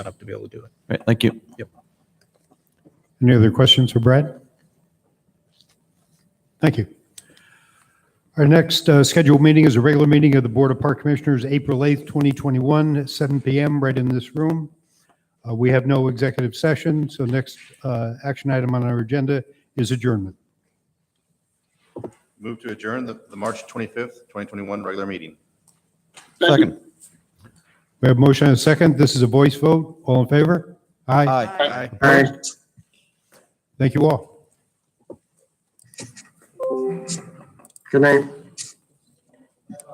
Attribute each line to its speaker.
Speaker 1: set up to be able to do it.
Speaker 2: Right, thank you.
Speaker 3: Any other questions for Brad? Thank you. Our next uh, scheduled meeting is a regular meeting of the Board of Park Commissioners, April 8th, 2021, at 7 PM, right in this room. Uh, We have no executive session, so next uh, action item on our agenda is adjournment.
Speaker 4: Move to adjourn the, the March 25th, 2021 regular meeting.
Speaker 2: Second.
Speaker 3: We have motion and a second. This is a voice vote. All in favor? Aye.
Speaker 1: Aye.
Speaker 3: Thank you all.
Speaker 5: Good night.